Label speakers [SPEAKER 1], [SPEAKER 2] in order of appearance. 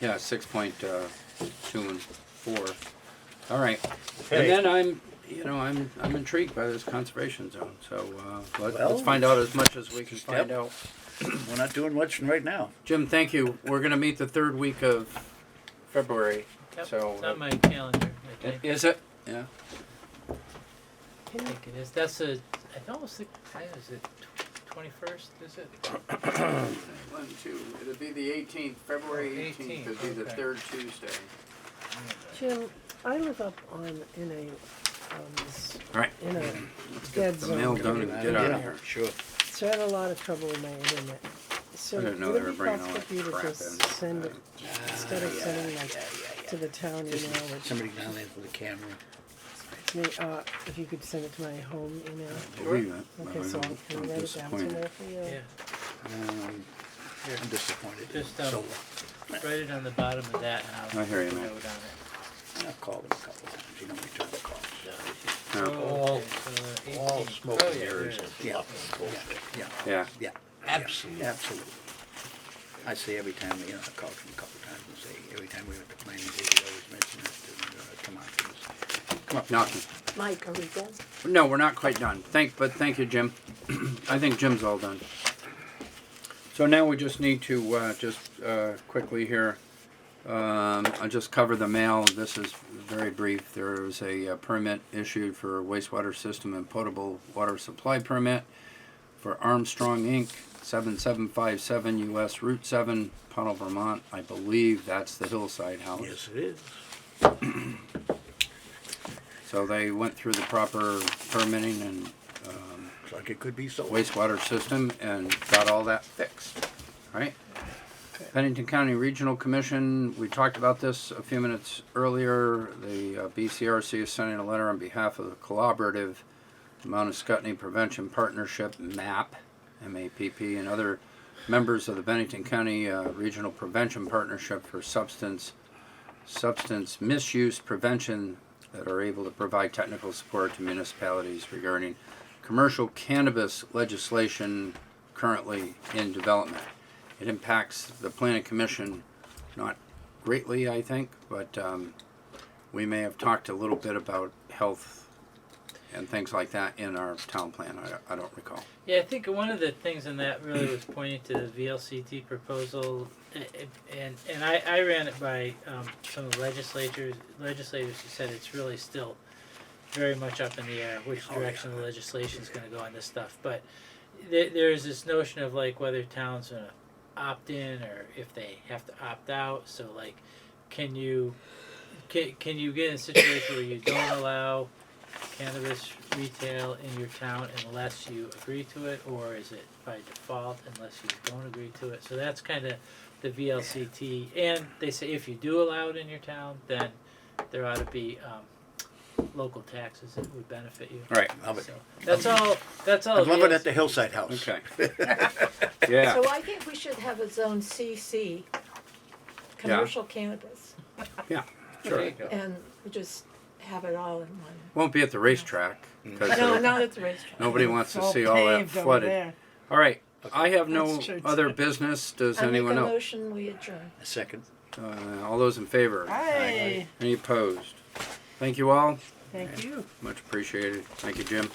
[SPEAKER 1] Yeah, six point, uh, two and four. All right. And
[SPEAKER 2] Okay.
[SPEAKER 1] then I'm, you know, I'm, I'm intrigued by this conservation zone, so, uh, let-
[SPEAKER 2] Well,
[SPEAKER 1] let's find out as much as we can
[SPEAKER 2] step.
[SPEAKER 1] find out.
[SPEAKER 2] We're not doing much right now.
[SPEAKER 1] Jim, thank you. We're gonna meet the third week of February,
[SPEAKER 3] Yep,
[SPEAKER 1] so.
[SPEAKER 3] It's on my calendar, I think.
[SPEAKER 1] Is it? Yeah.
[SPEAKER 3] I think it is. That's a, I almost think, when is it twenty-first, is it?
[SPEAKER 1] One, two, it'll be the eighteenth, February
[SPEAKER 2] Oh,
[SPEAKER 3] 18th, it'll be the okay.
[SPEAKER 1] third Tuesday.
[SPEAKER 4] Jim, I live up on, in a, um, s-
[SPEAKER 1] All right.
[SPEAKER 4] in a dead
[SPEAKER 1] The mail
[SPEAKER 4] zone.
[SPEAKER 1] done and get out of here.
[SPEAKER 2] Sure.
[SPEAKER 4] So I had a lot of trouble with my internet. So
[SPEAKER 1] I didn't know they
[SPEAKER 4] would it
[SPEAKER 1] were
[SPEAKER 4] be
[SPEAKER 1] bringing all
[SPEAKER 4] possible
[SPEAKER 1] that
[SPEAKER 4] for you to
[SPEAKER 1] crap
[SPEAKER 4] just
[SPEAKER 1] in.
[SPEAKER 4] send it, instead
[SPEAKER 2] Ah,
[SPEAKER 4] of sending like to the town email, which
[SPEAKER 2] Somebody down there with a camera.
[SPEAKER 4] to me, uh, if you could send it to my home email?
[SPEAKER 1] Wait a minute.
[SPEAKER 4] Okay, so I
[SPEAKER 1] I'm
[SPEAKER 4] can write it down
[SPEAKER 1] disappointed.
[SPEAKER 4] somewhere for you.
[SPEAKER 3] Yeah,
[SPEAKER 2] Um,
[SPEAKER 3] Here.
[SPEAKER 2] I'm disappointed.
[SPEAKER 3] Just, um,
[SPEAKER 2] So, uh,
[SPEAKER 3] write it on the bottom of that and I'll.
[SPEAKER 1] I hear you,
[SPEAKER 3] put a
[SPEAKER 1] man.
[SPEAKER 3] note on it.
[SPEAKER 2] I've called him a couple times. He don't return the calls.
[SPEAKER 1] No,
[SPEAKER 3] Oh,
[SPEAKER 5] All-
[SPEAKER 3] okay, so the
[SPEAKER 5] All
[SPEAKER 3] 18th.
[SPEAKER 5] smoke
[SPEAKER 3] Oh,
[SPEAKER 5] and
[SPEAKER 3] yeah, there
[SPEAKER 5] mirrors
[SPEAKER 3] it
[SPEAKER 5] and
[SPEAKER 3] is.
[SPEAKER 2] Yeah.
[SPEAKER 5] fluff and bullshit.
[SPEAKER 2] Yeah.
[SPEAKER 1] Yeah,
[SPEAKER 2] Yeah.
[SPEAKER 5] Absolutely.
[SPEAKER 2] Absolutely. I say every time, you know, I called him a couple times and say, every time we went to planning board, we always mention it to, uh, come on, please. Come up.
[SPEAKER 1] knocking.
[SPEAKER 4] Mike, are we done?
[SPEAKER 1] No, we're not quite done. Thank, but thank you, Jim. I think Jim's all done. So now we just need to, uh, just, uh, quickly here, um, I'll just cover the mail. This is very brief. There was a uh, permit issued for a wastewater system and potable water supply permit for Armstrong Inc., seven seven five seven US Route seven, Pownell, Vermont. I believe that's the hillside house.
[SPEAKER 5] Yes, it is.
[SPEAKER 1] So they went through the proper permitting and, um,
[SPEAKER 2] Looks like it could be so.
[SPEAKER 1] wastewater system and got all that fixed, right? Pennington County Regional Commission, we talked about this a few minutes earlier. The uh, BCRC is sending a letter on behalf of the collaborative Mount Scottney Prevention Partnership, MAP, M-A-P-P, and other members of the Bennington County uh, Regional Prevention Partnership for Substance, Substance Misuse Prevention that are able to provide technical support to municipalities regarding commercial cannabis legislation currently in development. It impacts the planning commission, not greatly, I think, but um, we may have talked a little bit about health and things like that in our town plan. I, I don't recall.
[SPEAKER 3] Yeah, I think one of the things in that really was pointing to the VLCT proposal, a- a- and and I, I ran it by um, some of the legislators legislators who said it's really still very much up in the air which
[SPEAKER 2] Oh, yeah.
[SPEAKER 3] direction the legislation is going to go on this stuff. But there, there's this notion of like whether towns are going to opt in or if they have to opt out. So like, can you can, can you get in a situation where you don't allow cannabis retail in your town unless you agree to it, or is it by default unless you don't agree to it? So that's kind of the VLCT, and they say if you do allow it in your town, then there ought to be um, local taxes that would benefit you.
[SPEAKER 1] All right.
[SPEAKER 2] Love it.
[SPEAKER 3] So that's all. That's all.
[SPEAKER 2] I'm loving it at
[SPEAKER 3] VLCT.
[SPEAKER 2] the Hillside House.
[SPEAKER 1] Okay. Yeah.
[SPEAKER 6] So I think we should have a zone CC, commercial cannabis,
[SPEAKER 3] There you go.
[SPEAKER 6] and we just have it all in one.
[SPEAKER 1] Won't be at the racetrack because
[SPEAKER 6] No, not at the restaurant.
[SPEAKER 1] nobody wants to
[SPEAKER 4] It's all
[SPEAKER 1] see all that
[SPEAKER 4] paved over
[SPEAKER 1] flooded.
[SPEAKER 4] there.
[SPEAKER 1] All right. I have no
[SPEAKER 4] That's true.
[SPEAKER 1] other business. Does
[SPEAKER 6] I make a
[SPEAKER 1] anyone else?
[SPEAKER 6] motion, we adjourn.
[SPEAKER 2] A second.
[SPEAKER 1] Uh, all those in favor?
[SPEAKER 4] Aye,
[SPEAKER 1] Any opposed? Thank you all.
[SPEAKER 4] thank you.
[SPEAKER 1] Much appreciated. Thank you, Jim.